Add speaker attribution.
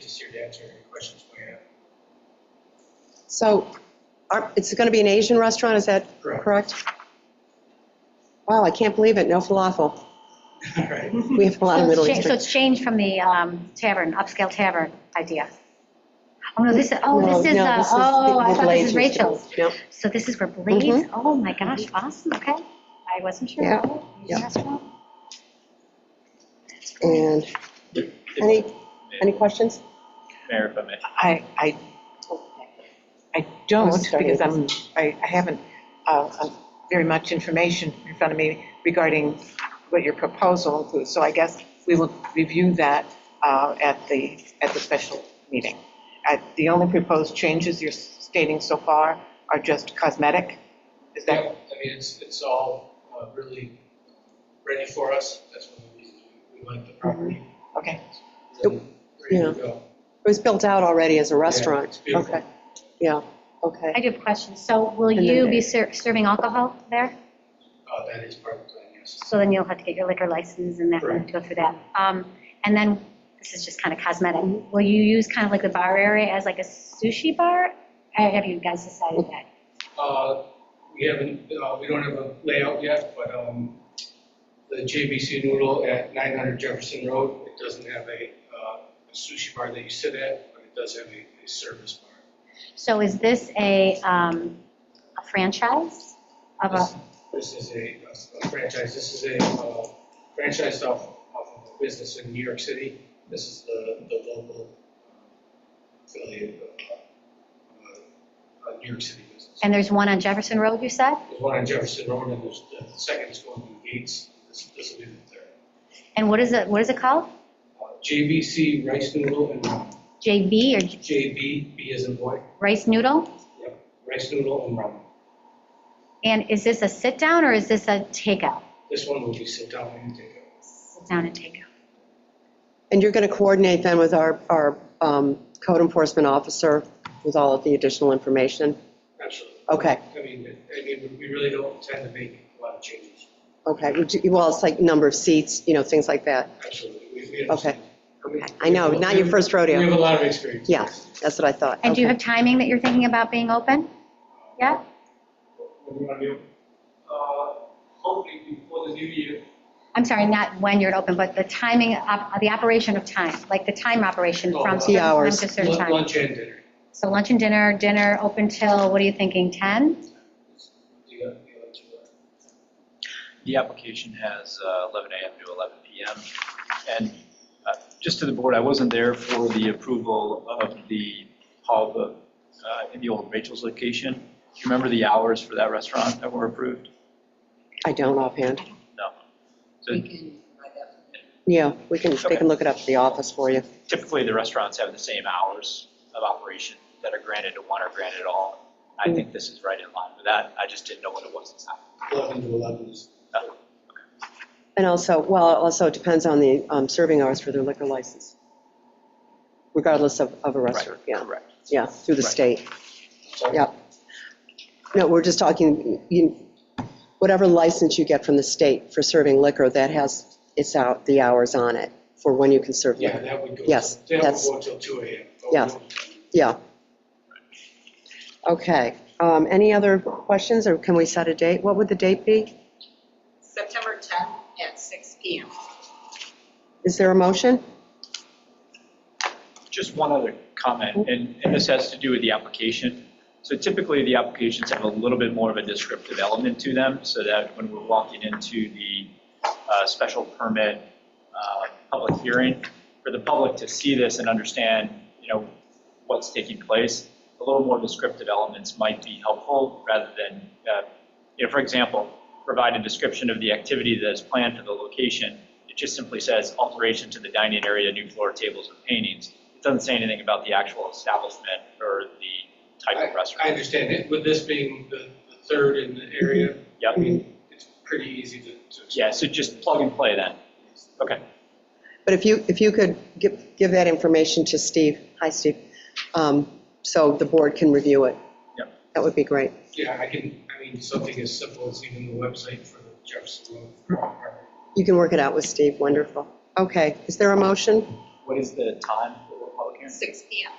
Speaker 1: Just here to answer any questions we have.
Speaker 2: So are- it's going to be an Asian restaurant, is that
Speaker 1: Correct.
Speaker 2: correct? Wow, I can't believe it, no falafel.
Speaker 1: All right.
Speaker 2: We have a lot of
Speaker 3: So
Speaker 2: Middle
Speaker 3: it's cha- So
Speaker 2: Eastern.
Speaker 3: it's changed from the um, tavern, upscale tavern idea. Oh, no, this, oh,
Speaker 2: No,
Speaker 3: this is,
Speaker 2: no,
Speaker 3: uh, oh, I
Speaker 2: with
Speaker 3: thought this
Speaker 2: Blades used
Speaker 3: is
Speaker 2: to be.
Speaker 3: Rachel's.
Speaker 2: Nope.
Speaker 3: So this is where Blades, oh my gosh, awesome, okay. I wasn't sure.
Speaker 2: Mm-hmm. Yeah,
Speaker 3: Oh,
Speaker 2: yeah.
Speaker 3: restaurant.
Speaker 2: And any, any questions?
Speaker 4: Mayor, if I may.
Speaker 5: I, I, I
Speaker 2: I
Speaker 5: don't,
Speaker 2: was sorry.
Speaker 5: because I'm, I, I haven't, uh, uh, very much information in front of me regarding what your proposal includes, so I guess we will review that, uh, at the, at the special meeting. I the only proposed changes you're stating so far are just cosmetic, is
Speaker 1: Yeah, I
Speaker 5: that?
Speaker 1: mean, it's, it's all uh, really ready for us. That's one of the reasons we we like the property.
Speaker 5: Okay,
Speaker 1: Really Ready to go.
Speaker 2: It was built out already as a
Speaker 1: Yeah, it's
Speaker 2: restaurant.
Speaker 1: beautiful.
Speaker 2: Okay, yeah, okay.
Speaker 3: I do have questions. So will
Speaker 2: And then
Speaker 3: you
Speaker 2: they-
Speaker 3: be ser- serving alcohol there?
Speaker 1: Uh, That is part of the plan, yes.
Speaker 3: So then you'll have to get your liquor license and that, and
Speaker 1: Correct.
Speaker 3: go through that. Um, And then, this is just kind of cosmetic, will you use kind of like the bar area as like a sushi bar? Uh, Have you guys decided that?
Speaker 1: Uh, We haven't, uh, we don't have a layout yet, but um, the JBC Noodle at 900 Jefferson Road, it doesn't have a uh, sushi bar that you sit at, but it does have a a service bar.
Speaker 3: So is this a, um, a franchise of a,
Speaker 1: This this is a a franchise, this is a uh, franchise off off of a business in New York City. This is the the local affiliate of uh, uh, New York City business.
Speaker 3: and there's one on Jefferson Road, you said?
Speaker 1: There's one on Jefferson Road, and there's, the second is going to Gates, this this will be the third.
Speaker 3: And what is it, what is it called?
Speaker 1: Uh, JBC Rice Noodle and Ramen,
Speaker 3: JB or J-
Speaker 1: JB, B as in boy,
Speaker 3: Rice Noodle?
Speaker 1: yep, Rice Noodle and Ramen.
Speaker 3: And is this a sit-down or is this a takeout?
Speaker 1: This one will be sit down and take out.
Speaker 3: Sit-down and takeout.
Speaker 2: And you're going to coordinate then with our, our um, code enforcement officer with all of the additional information?
Speaker 1: Absolutely.
Speaker 2: Okay,
Speaker 1: I mean, I mean, we really don't intend to make a lot of changes.
Speaker 2: okay. Would you- Well, it's like number of seats, you know, things like that.
Speaker 1: Absolutely. We- we understand.
Speaker 2: I know, not your first rodeo.
Speaker 1: We have a lot of experience.
Speaker 2: Yeah, that's what I thought.
Speaker 3: And do you
Speaker 2: Okay.
Speaker 3: have timing that you're thinking about being open? Yeah?
Speaker 1: What do you want to do? Uh, Hopefully before the new year.
Speaker 3: I'm sorry, not when you're open, but the timing, of the operation of time, like the time operation
Speaker 1: Oh,
Speaker 3: from
Speaker 1: lunch.
Speaker 3: certain time
Speaker 2: Hours.
Speaker 3: to certain
Speaker 1: lun-
Speaker 3: time.
Speaker 1: Lunch and dinner.
Speaker 3: So lunch and dinner, dinner open till, what are you thinking, 10?
Speaker 1: Do you have- do you have to-
Speaker 4: The application has uh, 11 AM to 11 PM. And uh, just to the board, I wasn't there for the approval of the hub uh, in the old Rachel's location. Do you remember the hours for that restaurant that were approved?
Speaker 2: I don't offhand.
Speaker 4: No. So
Speaker 6: We can buy that.
Speaker 2: Yeah, we can, they
Speaker 4: Okay.
Speaker 2: can look it up at the office for you.
Speaker 4: typically, the restaurants have the same hours of operation that are granted to one or granted all. I
Speaker 6: Mm.
Speaker 4: think this is right in line with that. I just didn't know what it was inside.
Speaker 1: Eleven to eleven is.
Speaker 2: And also, well, it also depends on the um, serving hours for their liquor license, regardless of, of a restaurant, yeah.
Speaker 4: Correct.
Speaker 2: Yeah, through the
Speaker 4: Right.
Speaker 2: state,
Speaker 1: Sorry?
Speaker 2: yeah. No, we're just talking, you, whatever license you get from the state for serving liquor, that has, it's out, the hours on it for when you can serve
Speaker 1: Yeah,
Speaker 2: liquor.
Speaker 1: that would go.
Speaker 2: Yes,
Speaker 1: till- That would
Speaker 2: that's-
Speaker 1: go until two AM. but we
Speaker 2: Yeah.
Speaker 1: don't-
Speaker 2: Yeah. Okay, um, any other questions, or can we set a date? What would the date be?
Speaker 6: September 10th at 6 PM.
Speaker 2: Is there a motion?
Speaker 4: Just one other comment, and, and this has to do with the application. So typically, the applications have a little bit more of a descriptive element to them, so that when we're walking into the uh, special permit uh, public hearing, for the public to see this and understand, you know, what's taking place, a little more descriptive elements might be helpful, rather than, uh, you know, for example, provide a description of the activity that is planned for the location. It just simply says alteration to the dining area, new floor tables and paintings. It doesn't say anything about the actual establishment or the type of
Speaker 1: I
Speaker 4: restaurant.
Speaker 1: understand it. With this being the the third in the area, I
Speaker 2: Mm-hmm.
Speaker 4: Yep.
Speaker 1: mean, it's pretty easy to. to-
Speaker 4: Yeah, so just plug and play then. Okay.
Speaker 2: But if you, if you could give, give that information to Steve, hi, Steve, um, so the board can review it.
Speaker 4: Yep.
Speaker 2: That would be great.
Speaker 1: Yeah, I can, I mean, something as simple as even the website for the Jefferson Road.
Speaker 2: You can work it out with Steve, wonderful. Okay, is there a motion?
Speaker 4: What is the time for the public hearing?
Speaker 6: six P M.